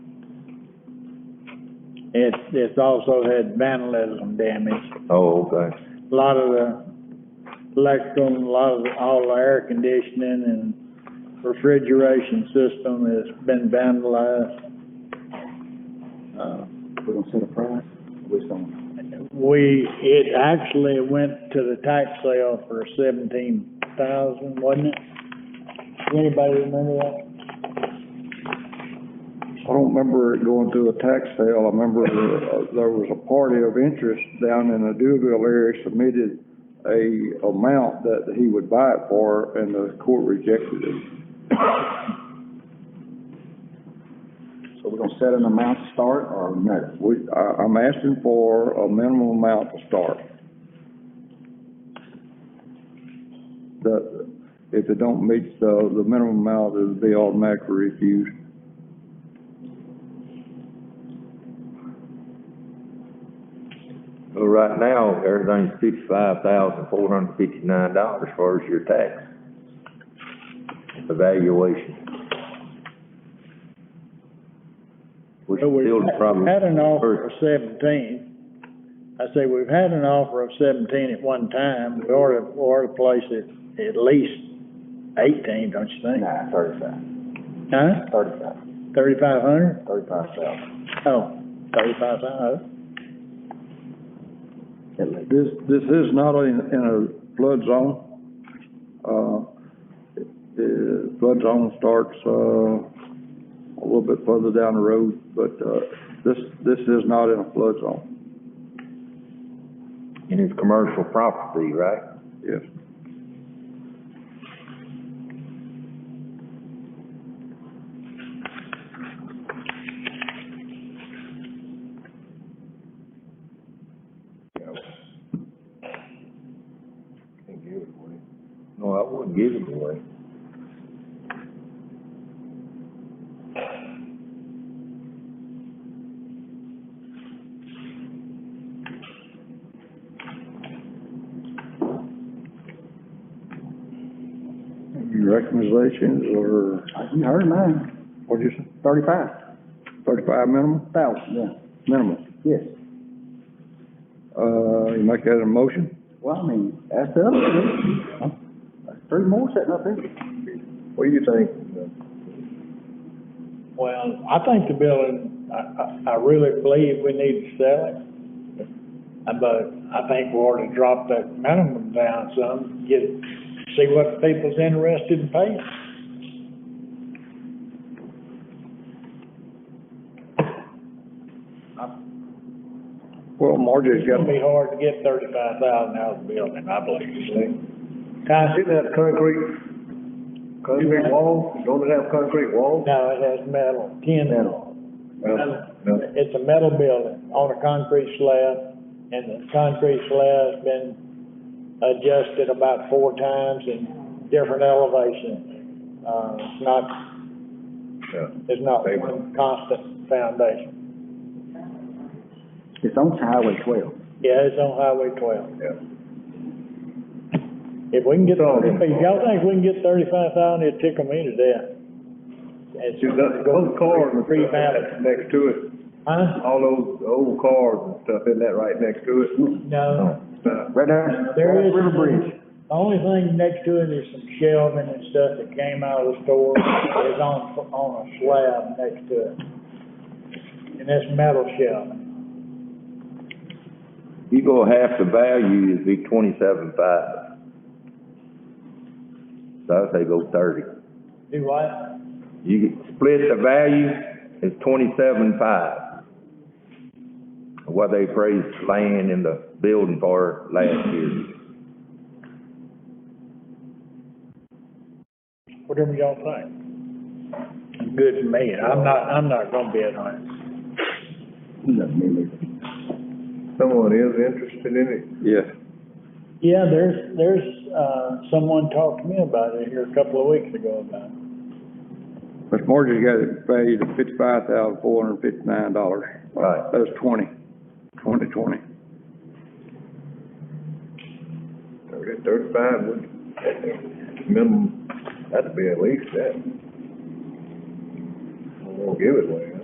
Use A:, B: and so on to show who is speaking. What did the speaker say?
A: It, it's also had vandalism damage.
B: Oh, okay.
A: A lot of the electrical, and a lot of, the- all the air conditioning and refrigeration system has been vandalized. Uh,
C: We're gonna set a price, we're gonna,
A: We, it actually went to the tax sale for seventeen thousand, wasn't it? Anybody remember that?
C: I don't remember it going through a tax sale, I remember uh, there was a party of interest down in the Dewville area submitted a amount that he would buy it for, and the court rejected it.
D: So we're gonna set an amount to start or no?
C: We, I, I'm asking for a minimum amount to start. The, if it don't meet the, the minimum amount, it'll be automatically refused.
B: Well, right now, everything's fifty-five thousand, four hundred fifty-nine dollars as far as your tax evaluation. Which
A: We've
B: still probably.
A: Had an offer of seventeen. I say, we've had an offer of seventeen at one time, we ought to, ought to place it at least eighteen, don't you think?
D: Nah, thirty-five,
A: Huh?
D: thirty-five,
A: Thirty-five hundred?
D: thirty-five thousand.
A: Oh, thirty-five thousand.
C: This, this is not in, in a flood zone. Uh, the flood zone starts, uh, a little bit further down the road, but, uh, this, this is not in a flood zone,
B: And it's commercial property, right?
C: yes.
B: Can't give it away. No, I wouldn't give it away.
C: Your recommendations are,
D: You heard mine,
C: what'd you say,
D: thirty-five
C: thirty-five minimum,
D: thousand, yeah,
C: minimum?
D: yes.
C: Uh, you make that a motion?
D: Well, I mean, that's the other thing. That's three more sitting up there.
C: What do you think?
A: Well, I think the building, I, I, I really believe we need to sell it. Uh, But I think we ought to drop that minimum down some, get, see what people's interested in paying.
C: Well, Marjorie's
A: It's
C: got,
A: gonna be hard to get thirty-five thousand out of the building, I believe, you see. Ty?
E: Didn't have concrete, concrete wall, don't it have concrete wall?
A: No, it has metal, tin. Metal.
B: metal.
A: It's a metal building on a concrete slab, and the concrete slab's been adjusted about four times in different elevations. Uh, it's not, it's not one constant foundation.
D: It's on Highway twelve.
A: Yeah, it's on Highway twelve. If we can get, if y'all think we can get thirty-five thousand, it'd tickle me to death. It's,
E: You've got those cars and
A: Pretty
E: stuff
A: bad.
E: that's next to it,
A: huh?
E: all those old cars and stuff, isn't that right next to it?
A: No.
E: Uh,
B: Mm-hmm.
D: Right there.
A: There is.
D: River Bridge.
A: The only thing next to it is some shelving and stuff that came out of the store, it's on, on a slab next to it. And that's metal shelving.
B: You go half the value, it'd be twenty-seven five. So I'd say go thirty.
A: Do what?
B: You could split the value, it's twenty-seven five. What they appraised land in the building for last year.
A: Whatever y'all think. Good to me, I'm not, I'm not gonna be at home.
D: No, me neither.
E: Someone is interested in it,
C: yes.
A: Yeah, there's, there's, uh, someone talked to me about it here a couple of weeks ago about it.
C: Miss Marjorie's got it valued at fifty-five thousand, four hundred and fifty-nine dollars.
B: Right.
C: That's twenty, twenty, twenty.
E: thirty, thirty-five would, minimum, that'd be at least that. I won't give it away, huh?